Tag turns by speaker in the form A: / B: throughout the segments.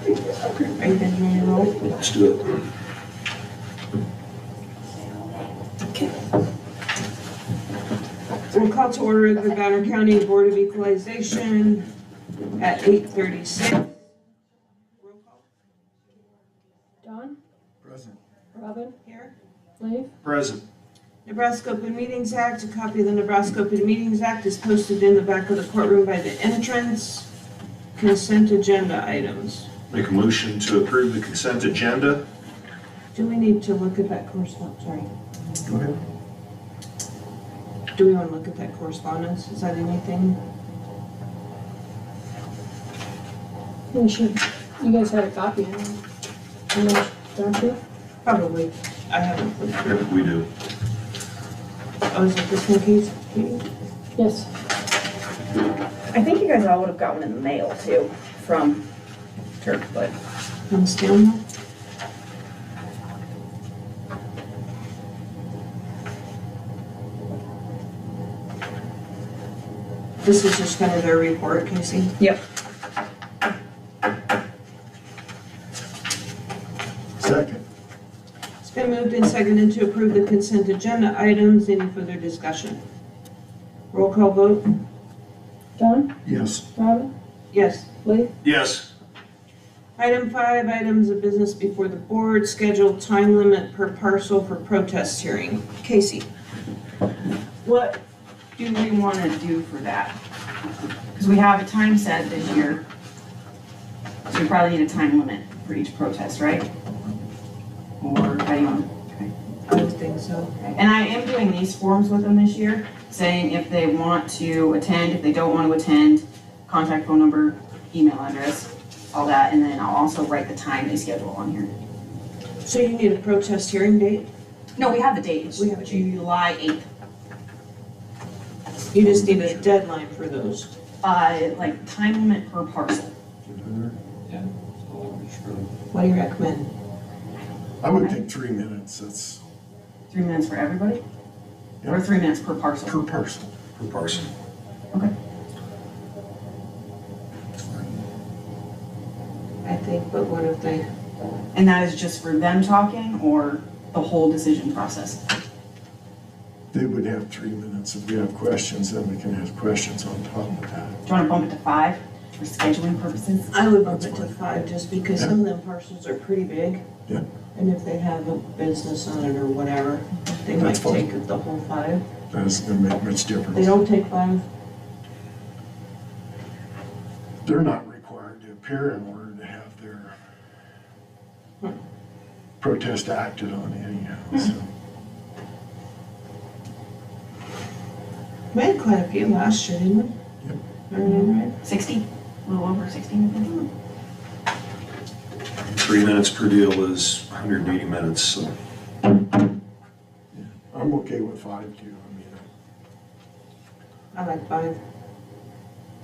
A: Are you guys ready to roll?
B: Let's do it.
A: We'll call to order the Banner County Board of Equalization at eight thirty-six. Roll call
C: Don,
B: Present.
C: Robin,
A: here.
C: Leif,
B: Present.
A: Nebraska Open Meetings Act, a copy of the Nebraska Open Meetings Act is posted in the back of the courtroom by the entrance. Consent agenda items.
B: Make a motion to approve the consent agenda.
A: Do we need to look at that correspondence, sorry?
B: Go ahead.
A: Do we want to look at that correspondence? Is that anything?
C: you should, you guys had a copy, I don't know, don't you?
A: Probably. I haven't looked through.
B: Yep, we do.
A: Oh, is it this one, Keith?
C: Yes,
D: I think you guys all would have got one in the mail too, from Turk, but
A: I'm still. This is just kind of their report, Casey.
B: Second.
A: It's been moved and seconded to approve the consent agenda items. Any further discussion? Roll call vote?
C: Don,
B: Yes.
C: Robin,
A: Yes.
C: Leif,
B: Yes.
A: Item five, items of business before the board, scheduled time limit per parcel for protest hearing. Casey?
D: what do we want to do for that? Because we have a time set this year. So we probably need a time limit for each protest, right? Or how do you want?
A: I would think so.
D: And I am doing these forms with them this year, saying if they want to attend, if they don't want to attend, contact phone number, email address, all that, and then I'll also write the time they schedule on here.
A: So you need a protest hearing date?
D: No, we have the date, it's
A: We have a date.
D: July eighth.
A: You just need a deadline for those.
D: uh, like time limit per parcel.
A: What do you recommend?
E: I would think three minutes, that's
D: Three minutes for everybody? Or three minutes per parcel?
E: per person.
B: Per parcel.
A: I think, but what if they,
D: And that is just for them talking or the whole decision process?
E: They would have three minutes. If we have questions, then we can have questions on top of that.
D: Do you want to bump it to five for scheduling purposes?
A: I would bump it to five just because some of them parcels are pretty big.
E: Yeah.
A: And if they have a business on it or whatever, they might
E: That's
A: take
E: fine.
A: the whole five.
E: That isn't gonna make much
A: They
E: difference.
A: don't take five,
E: They're not required to appear in order to have their
A: Hmm.
E: protest acted on anyhow, so.
A: we had quite a few last year, didn't we?
E: Yep.
A: I remember it.
D: Sixty, a little over sixty, I think.
B: Three minutes per deal is 180 minutes, so.
E: I'm okay with five too. I mean,
A: I like five.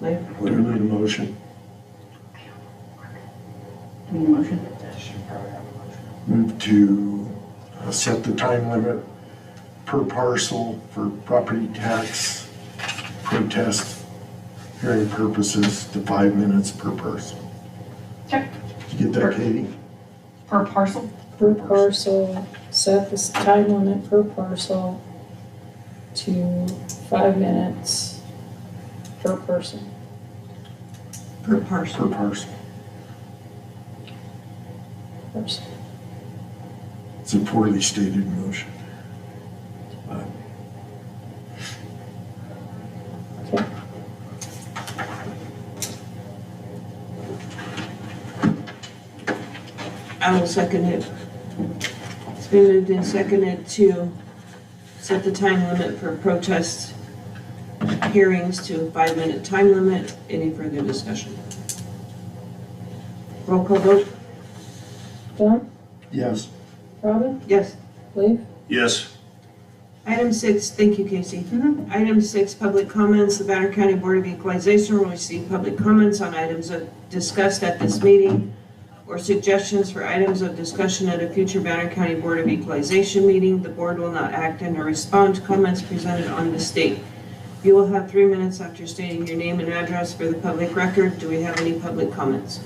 A: Like,
E: I- do we need a motion?
D: Do we need a motion?
E: Move to uh, set the time limit per parcel for property tax protest hearing purposes to five minutes per person.
D: Check.
E: Did you get that, Katie?
D: Per parcel?
C: per parcel, set this time limit per parcel to five minutes per person.
A: per
E: Per
A: parcel.
E: parcel.
C: Person.
E: It's a poorly stated motion. but
A: I will second it. It's been moved and seconded to set the time limit for protest hearings to a five-minute time limit. Any further discussion? Roll call vote?
C: Don,
E: Yes,
C: Robin,
A: Yes.
C: Leif,
B: Yes.
A: Item six, thank you, Casey.
D: Mhm.
A: Item six, public comments. The Banner County Board of Equalization will receive public comments on items of- discussed at this meeting or suggestions for items of discussion at a future Banner County Board of Equalization meeting. The board will not act and or respond to comments presented on this date. You will have three minutes after stating your name and address for the public record. Do we have any public comments?